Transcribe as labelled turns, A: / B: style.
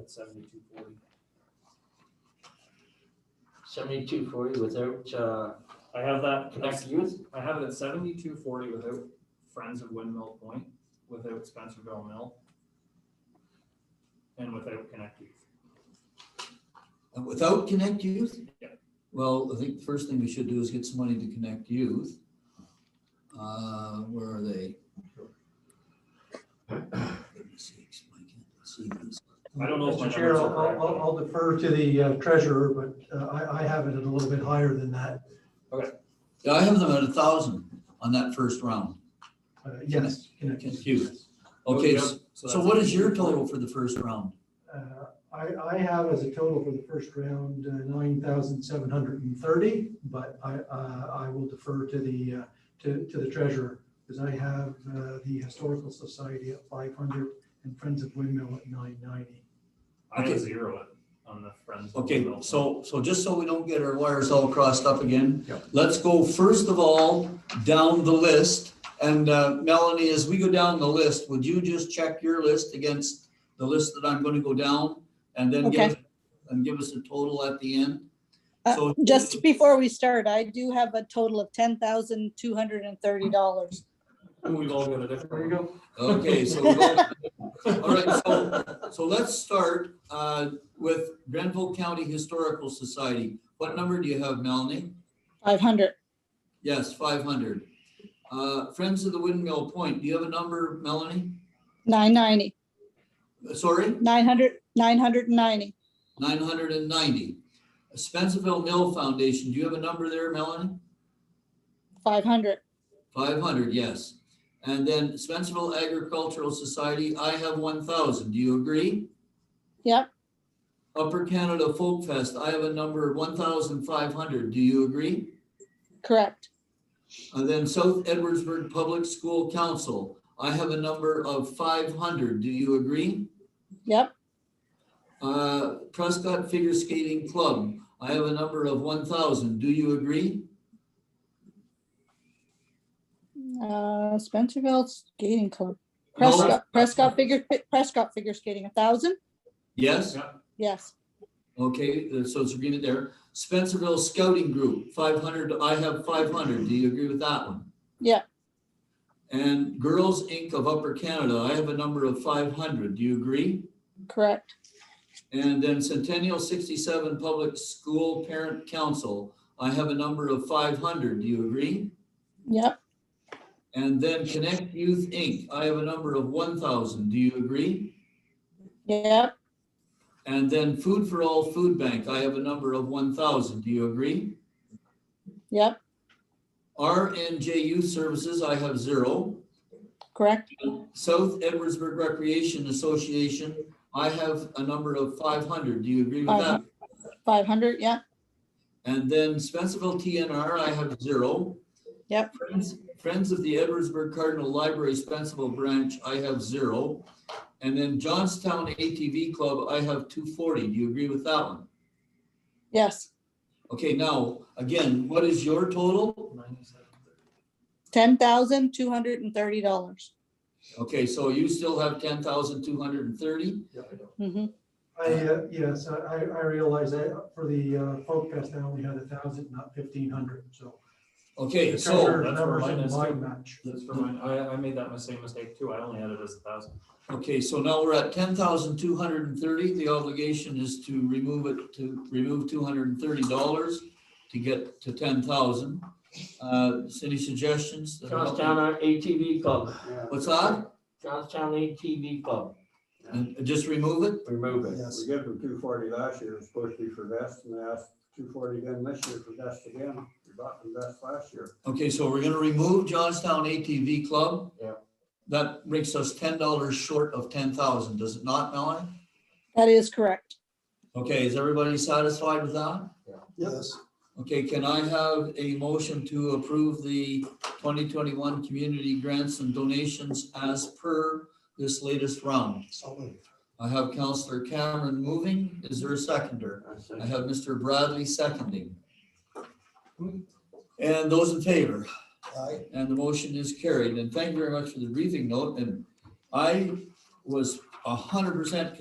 A: at seventy-two forty.
B: Seventy-two forty without, uh,
A: I have that
B: Connect
A: next,
B: Youth?
A: I have it at seventy-two forty without Friends of Windmill Point, without Spencerville Mill. And without Connect Youth.
C: And without Connect Youth?
A: Yeah.
C: Well, I think the first thing we should do is get some money to Connect Youth. Uh, where are they? Let me see, I can't see this.
A: I don't know if my
D: Mr. Chair,
A: numbers are
D: I'll, I'll- I'll defer to the uh, treasurer, but uh, I, I have it at a little bit higher than that.
C: Yeah, I have them at a thousand on that first round.
D: Uh, Yes, Connecticut.
C: Connect Youth. Okay,
A: Yep,
C: s- so
A: that's-
C: what is your total for the first round?
D: Uh, I, I have as a total for the first round, uh, nine thousand seven hundred and thirty, but I, uh, I will defer to the, uh, to, to the treasurer, because I have uh, the Historical Society at five hundred and Friends of Windmill at nine ninety.
A: I
C: Okay.
A: have zero it on the Friends of
C: Okay,
A: Windmill. Point.
C: so, so just so we don't get our wires all crossed up again.
D: Yeah.
C: Let's go first of all, down the list. And uh, Melanie, as we go down the list, would you just check your list against the list that I'm gonna go down? And then give, us- and give us a total at the end?
E: Uh,
C: So
E: Just before we start, I do have a total of ten thousand two hundred and thirty dollars.
A: And We've all got a different.
D: There you go.
C: Okay, so, go- all right, so, so let's start uh, with Grenville County Historical Society. What number do you have, Melanie?
E: Five hundred.
C: Yes, five hundred. Uh, Friends of the Windmill Point, do you have a number, Melanie?
E: Nine ninety.
C: Uh, Sorry,
E: Nine hundred. Nine hundred and ninety.
C: nine hundred and ninety. Spencerville Mill Foundation, do you have a number there, Melanie?
E: Five hundred.
C: Five hundred, yes. And then Spencerville Agricultural Society, I have one thousand. Do you agree?
E: Yep.
C: Upper Canada Folk Fest, I have a number one thousand five hundred. Do you agree?
E: Correct.
C: And then South Edwardsburg Public School Council, I have a number of five hundred. Do you agree?
E: Yep.
C: Uh, Prescott Figure Skating Club, I have a number of one thousand. Do you agree?
E: Uh, Spencerville Skating Club.
C: No.
E: Prescott, Prescott Figure, Prescott Figure Skating, a thousand?
C: Yes?
A: Yeah.
E: Yes.
C: Okay, uh, so it's agreement there. Spencerville Scouting Group, five hundred, I have five hundred. Do you agree with that one?
E: Yeah.
C: And Girls Inc. of Upper Canada, I have a number of five hundred. Do you agree?
E: Correct.
C: And then Centennial sixty-seven Public School Parent Council, I have a number of five hundred, do you agree?
E: Yep.
C: And then Connect Youth Inc., I have a number of one thousand, do you agree?
E: Yep.
C: And then Food for All Food Bank, I have a number of one thousand, do you agree?
E: Yep.
C: RNJ Youth Services, I have zero.
E: Correct.
C: South Edwardsburg Recreation Association, I have a number of five hundred, do you agree with that?
E: Five hundred. Yep.
C: And then Spencerville TNR, I have zero.
E: Yep.
C: Friends, Friends of the Edwardsburg Cardinal Library Spencerville Branch, I have zero. And then Johnstown ATV Club, I have two forty. Do you agree with that one?
E: Yes.
C: Okay, now, again, what is your total?
E: Ten thousand two hundred and thirty dollars.
C: Okay, so you still have ten thousand two hundred and thirty?
E: Mm-hmm.
D: I, uh, yes, I, I I realize that for the uh, folk fest, I only had a thousand, not fifteen hundred, so.
C: Okay,
D: The
C: so,
D: treasurer's
A: that's where
D: numbers
A: mine
D: didn't
A: is
D: lie
A: too.
D: much.
A: That's for mine. I, I made that mis- same mistake too. I only had it as a thousand.
C: okay, so now we're at ten thousand two hundred and thirty. The obligation is to remove it, to remove two hundred and thirty dollars to get to ten thousand. Uh, any suggestions?
B: Johnstown ATV Club,
C: What's that?
B: Johnstown ATV Club,
C: And just remove it?
B: remove it.
F: We gave them two forty last year, it was supposed to be for vests, and they asked two forty again this year for vests again. We bought them vests last year.
C: Okay, so we're gonna remove Johnstown ATV Club.
B: Yeah.
C: That makes us ten dollars short of ten thousand, does it not, Melanie?
E: That is correct.
C: Okay, is everybody satisfied with that?
D: Yes.
C: Okay, can I have a motion to approve the twenty twenty-one community grants and donations as per this latest round? I have Counselor Cameron moving. Is there a seconder? I have Mr. Bradley seconding. And those in favor? Aye. And the motion is carried. And thank you very much for the briefing note. And I was hundred percent